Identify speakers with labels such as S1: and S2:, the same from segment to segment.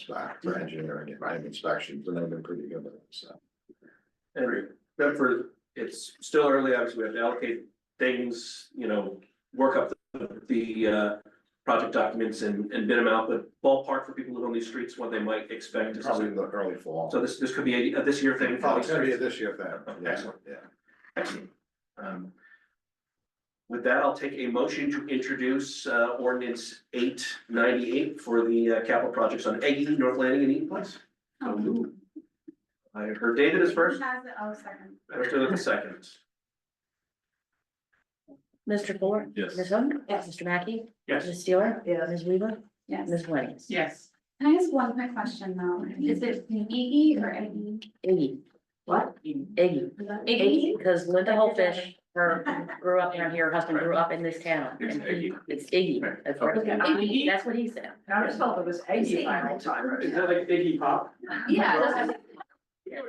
S1: spec for engineering and land inspections, and they've been pretty good with it, so.
S2: And that for, it's still early, obviously, we have to allocate things, you know, work up the, the, uh. Project documents and, and bid them out, but ballpark for people who live on these streets, what they might expect is,
S1: Probably the early fall.
S2: so this, this could be a, a this year thing.
S1: Probably it's gonna be a this year thing, yeah,
S2: Excellent.
S1: yeah.
S2: Excellent. Um, With that, I'll take a motion to introduce, uh, ordinance eight ninety-eight for the uh, capital projects on Eggy, North Landing and Eaton Place. So moved. I heard David is first,
S3: Oh. Has it, oh, second.
S2: Mr. the second.
S4: Mr. Fuller.
S5: Yes.
S4: Ms. Hook.
S3: Yes.
S4: Mr. Mackey.
S2: Yes.
S4: Ms. Steeler.
S6: Yes.
S4: Ms. Weaver.
S3: Yes.
S4: Ms. Williams.
S6: Yes.
S3: Can I ask one quick question though? Is it Iggy or Iggy?
S4: Iggy. What? Iggy. Iggy, because Linda Holfish, her, grew up down here, her husband grew up in this town.
S5: It's
S4: and he-
S5: Iggy.
S4: It's Iggy. That's right.
S6: Okay.
S4: Iggy, That's what he said.
S6: I just thought it was eighty by all time.
S2: Is that like Iggy Pop?
S3: Yeah, that's-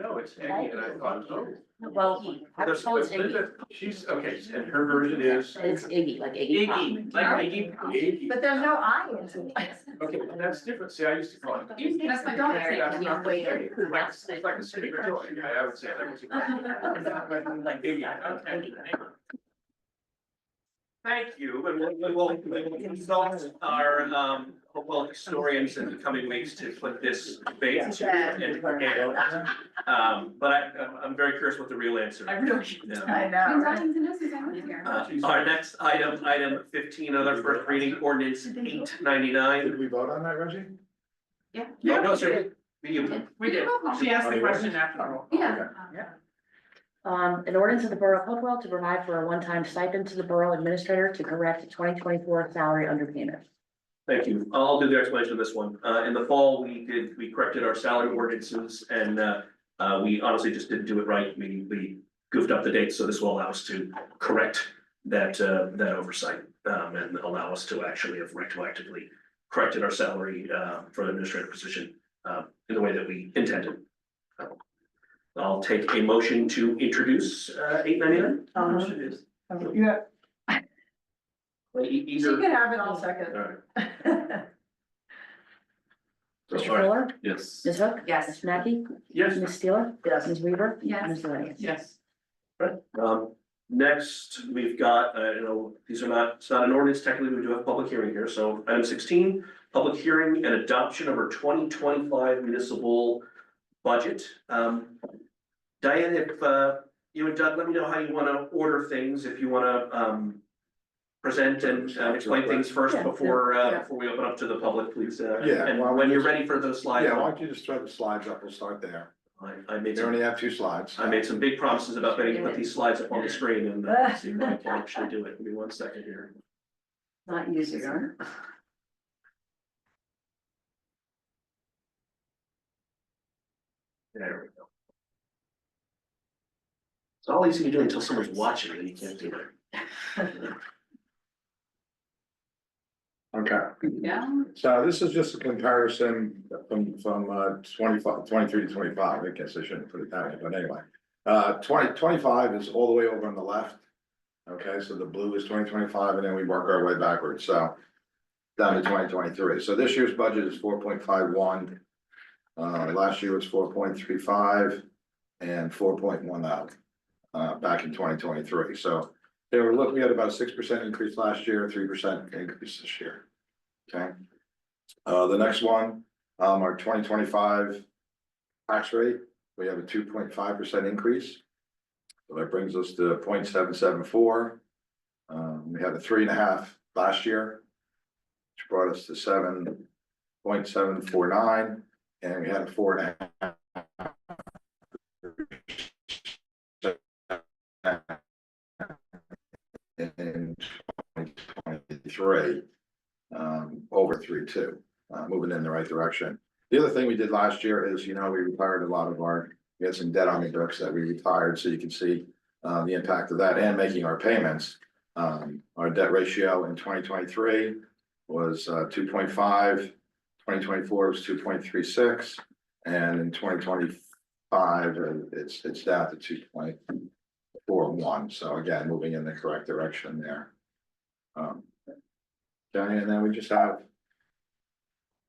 S2: No, it's Eggy and I thought, oh.
S4: Well, I was told it's Iggy.
S2: She's, okay, and her version is.
S4: It's Iggy, like Iggy Pop.
S2: like Iggy. Iggy.
S6: But there's no I in it.
S2: Okay, but that's different, see, I used to call it.
S3: That's my daughter's name.
S2: That's not the thing. It's like a secret door. Yeah, I would say that was. Like Iggy, okay. Thank you, and we'll, we'll, we'll consult our, um, well, historians in the coming weeks to put this debate in together. Um, but I, I'm- I'm very curious what the real answer is.
S6: I really,
S2: Yeah.
S6: I
S3: Who's
S6: know.
S3: Dr. Zenosis? I went here.
S2: Uh, our next item, item fifteen, other first reading ordinance eight ninety-nine.
S1: Did we vote on that, Reggie?
S2: No, no, sir. You-
S6: We did. She asked the question after all.
S3: Yeah.
S4: Um, an ordinance of the Borough of Hopewell to provide for a one-time stipend to the Borough Administrator to correct twenty twenty-four salary underpayment.
S2: Thank you. I'll do the explanation of this one. Uh, in the fall, we did, we corrected our salary ordinances and, uh, uh, we honestly just didn't do it right. We, we goofed up the dates, so this will allow us to correct that, uh, that oversight, um, and allow us to actually have retroactively corrected our salary, uh, for the administrative position, uh, in the way that we intended. I'll take a motion to introduce, uh, eight ninety-nine.
S6: Uh-huh. Yeah. She
S2: Either.
S6: can have it all
S2: All
S6: second.
S2: right.
S4: Mr.
S2: All right.
S4: Fuller.
S5: Yes.
S4: Ms. Hook.
S6: Yes.
S4: Ms. Mackey.
S2: Yes.
S4: Ms. Steeler.
S6: Yes.
S4: Ms. Weaver.
S3: Yes.
S4: Ms. Williams.
S6: Yes.
S2: Um, next, we've got, uh, you know, these are not, it's not an ordinance, technically, we do have public hearing here, so item sixteen. Public hearing and adoption of our twenty twenty-five municipal budget. Um, Diane, if, uh, you and Doug, let me know how you wanna order things, if you wanna, um. Present and uh, explain things first
S4: Yeah, yeah,
S2: before, uh,
S4: yeah.
S2: before we open up to the public, please, uh,
S1: Yeah,
S2: and
S1: why don't
S2: when
S1: we
S2: you're
S1: just-
S2: ready for those slides.
S1: Yeah, why don't you just throw the slides up, we'll start there.
S2: I, I made
S1: You
S2: some
S1: only have two slides.
S2: I made some big promises about getting to put these slides up on the screen and uh, see if I can actually do it. Give me one second here.
S6: Not easier.
S2: There we go. It's all easy to do until someone's watching and you can't do it.
S1: Okay.
S3: Yeah.
S1: So this is just a comparison from, from uh, 25 23 to twenty-five, I guess I shouldn't put it that way, but anyway. Uh, 20 25 is all the way over on the left. Okay, so the blue is twenty twenty-five, and then we work our way backwards, so. Down to twenty twenty-three, so this year's budget is four point five one. Uh, last year was four point three five and four point one out, uh, back in twenty twenty-three, so. They were looking at about a six percent increase last year, three percent increase this year. Okay. Uh, the next one, um, our twenty twenty-five tax rate, we have a two point five percent increase. So that brings us to 0.774. Um, we had a three and a half last year, which brought us to seven point seven four nine, and we had a four and a half. In twenty twenty-three, um, over three two uh, moving in the right direction. The other thing we did last year is, you know, we retired a lot of our, we had some debt on the books that we retired, so you can see uh, the impact of that and making our payments. Um, our debt ratio in twenty twenty-three was uh, 2.5, 2024 was two point three six, and in twenty twenty-five, uh, it's, it's down to two point four one, so again, moving in the correct direction there. Um, Johnny, and then we just have